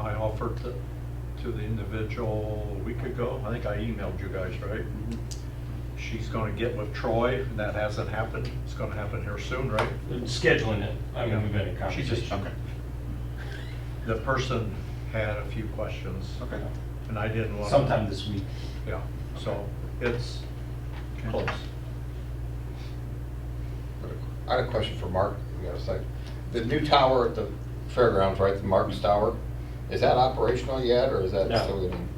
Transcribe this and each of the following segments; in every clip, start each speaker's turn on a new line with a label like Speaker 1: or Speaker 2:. Speaker 1: I offered to, to the individual a week ago. I think I emailed you guys, right? She's gonna get with Troy, and that hasn't happened. It's gonna happen here soon, right?
Speaker 2: Scheduling it, I mean, we've been in
Speaker 1: She
Speaker 2: conversation.
Speaker 1: just- The person had a few questions,
Speaker 3: Okay.
Speaker 1: and I didn't want.
Speaker 2: Sometime this week.
Speaker 1: Yeah, so it's close.
Speaker 3: I had a question for Mark, on the other side. The new tower at the fairgrounds, right, the Mark's Tower, is that operational yet, or is that
Speaker 4: No.
Speaker 3: still getting?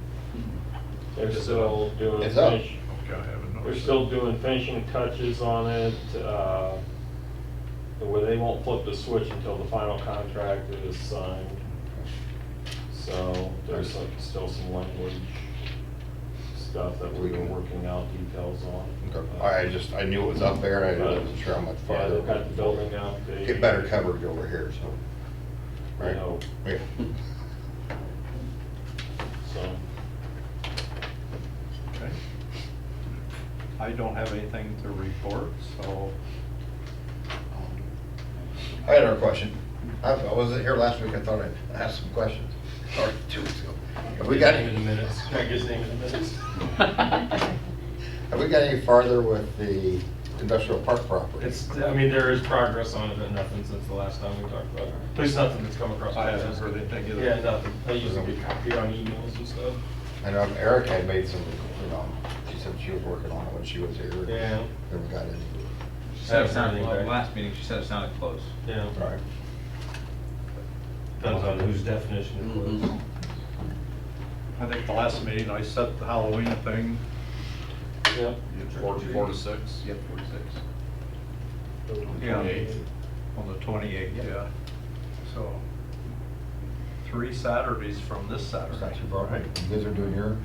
Speaker 4: They're still doing,
Speaker 3: It's up.
Speaker 4: finish-
Speaker 1: Okay, I haven't noticed.
Speaker 4: they're still doing finishing touches on it, uh, where they won't flip the switch until the final contract is signed. So there's like still some language stuff that we've been working out details on. Uh,
Speaker 3: Okay. I just, I knew it was up there, and I wasn't sure how much
Speaker 4: Yeah,
Speaker 3: farther.
Speaker 4: they've got the building out. They-
Speaker 3: Get better coverage over here, so.
Speaker 4: you
Speaker 3: Right?
Speaker 4: know,
Speaker 3: Yeah.
Speaker 4: So,
Speaker 1: Okay. I don't have anything to report, so
Speaker 3: I had another question. I I wasn't here last week, I thought I asked some questions, or two weeks ago. Have we got
Speaker 2: Name in
Speaker 3: any,
Speaker 2: the minutes. Can I get his name in the minutes?
Speaker 3: have we got any farther with the industrial park property?
Speaker 2: It's, I mean, there is progress on it, but nothing since the last time we talked about it. There's nothing that's come across.
Speaker 1: I haven't heard anything either.
Speaker 2: Yeah, nothing. I usually get copied on emails and stuff.
Speaker 3: I know um, Eric had made some, you know, she said she was working on it when she was here.
Speaker 2: Yeah.
Speaker 3: Never got it.
Speaker 5: She said it sounded, well, last meeting, she said it sounded close.
Speaker 2: Yeah,
Speaker 3: Right.
Speaker 2: depends on whose definition it was.
Speaker 1: Mm-hmm. I think the last meeting I set the Halloween thing,
Speaker 4: yeah.
Speaker 1: four, four to six.
Speaker 5: Yep, forty-six.
Speaker 1: Yeah, on the twenty-eighth, yeah. So, three Saturdays from this Saturday.
Speaker 3: Got you, bro. You guys are doing your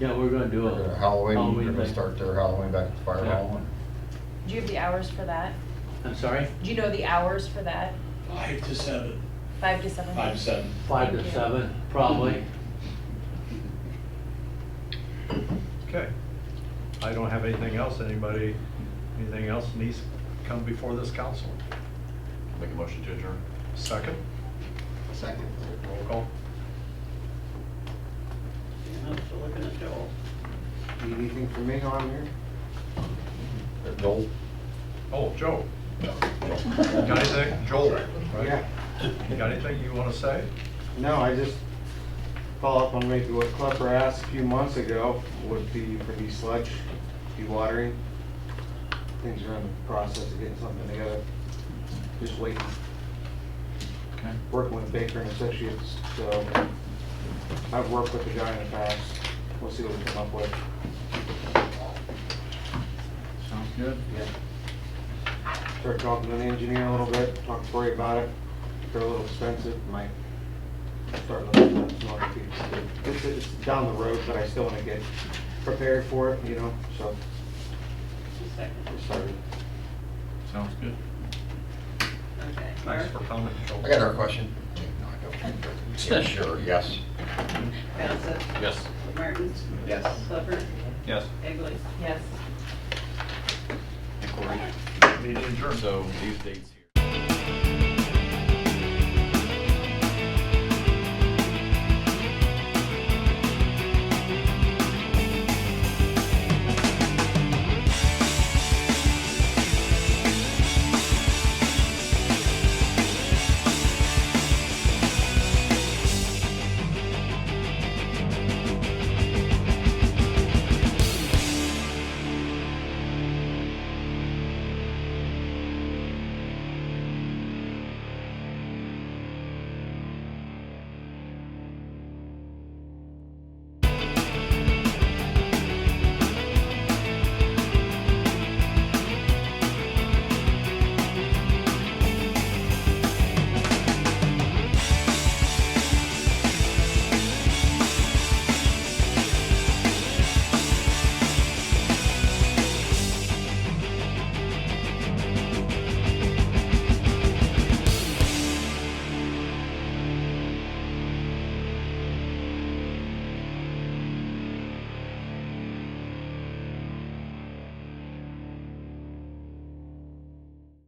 Speaker 6: Yeah, we're gonna do
Speaker 3: your
Speaker 6: a
Speaker 3: Halloween, you're gonna
Speaker 6: thing.
Speaker 3: start their Halloween back at the fire
Speaker 6: Yeah.
Speaker 3: hall. and-
Speaker 7: Do you have the hours for that?
Speaker 6: I'm sorry,
Speaker 7: Do you know the hours for that?
Speaker 8: Five to seven.
Speaker 7: Five to seven?
Speaker 8: Five, seven.
Speaker 6: five to
Speaker 7: Thank you.
Speaker 6: seven, probably.
Speaker 1: Okay. I don't have anything else. Anybody, anything else needs to come before this council?
Speaker 5: Make a motion to adjourn.
Speaker 1: Second? Second. Roll call.
Speaker 8: I'm still looking at Joel.
Speaker 3: Anything for me on here? Joel?
Speaker 1: Oh, Joe. Got anything? Joel, right?
Speaker 9: Yeah,
Speaker 1: Got anything you want to say?
Speaker 9: no, I just follow up on maybe what Klepper asked a few months ago, would be for the sludge, watering. Things are in the process of getting something together, just waiting,
Speaker 5: Okay.
Speaker 9: working with Baker and Associates, so I've worked with the guy in the past, we'll see what we come up with.
Speaker 5: Sounds good.
Speaker 9: Start talking to the engineer a little bit, talk to Cory about it, if they're a little expensive, might start looking at some other pieces. too. It's, it's down the road, but I still wanna get prepared for it, you know, so. Just started.
Speaker 5: Sounds good.
Speaker 10: Okay.
Speaker 1: Thanks for coming, Joel.
Speaker 3: I got our question. No, I don't. Yeah, Sure, yes.
Speaker 10: Bassett?
Speaker 5: Yes.
Speaker 10: Martins?
Speaker 5: Yes.
Speaker 10: Clifford?
Speaker 5: Yes.
Speaker 10: Egley?
Speaker 7: Yes.
Speaker 5: And Corey,
Speaker 1: Meeting adjourned.
Speaker 5: so these dates here.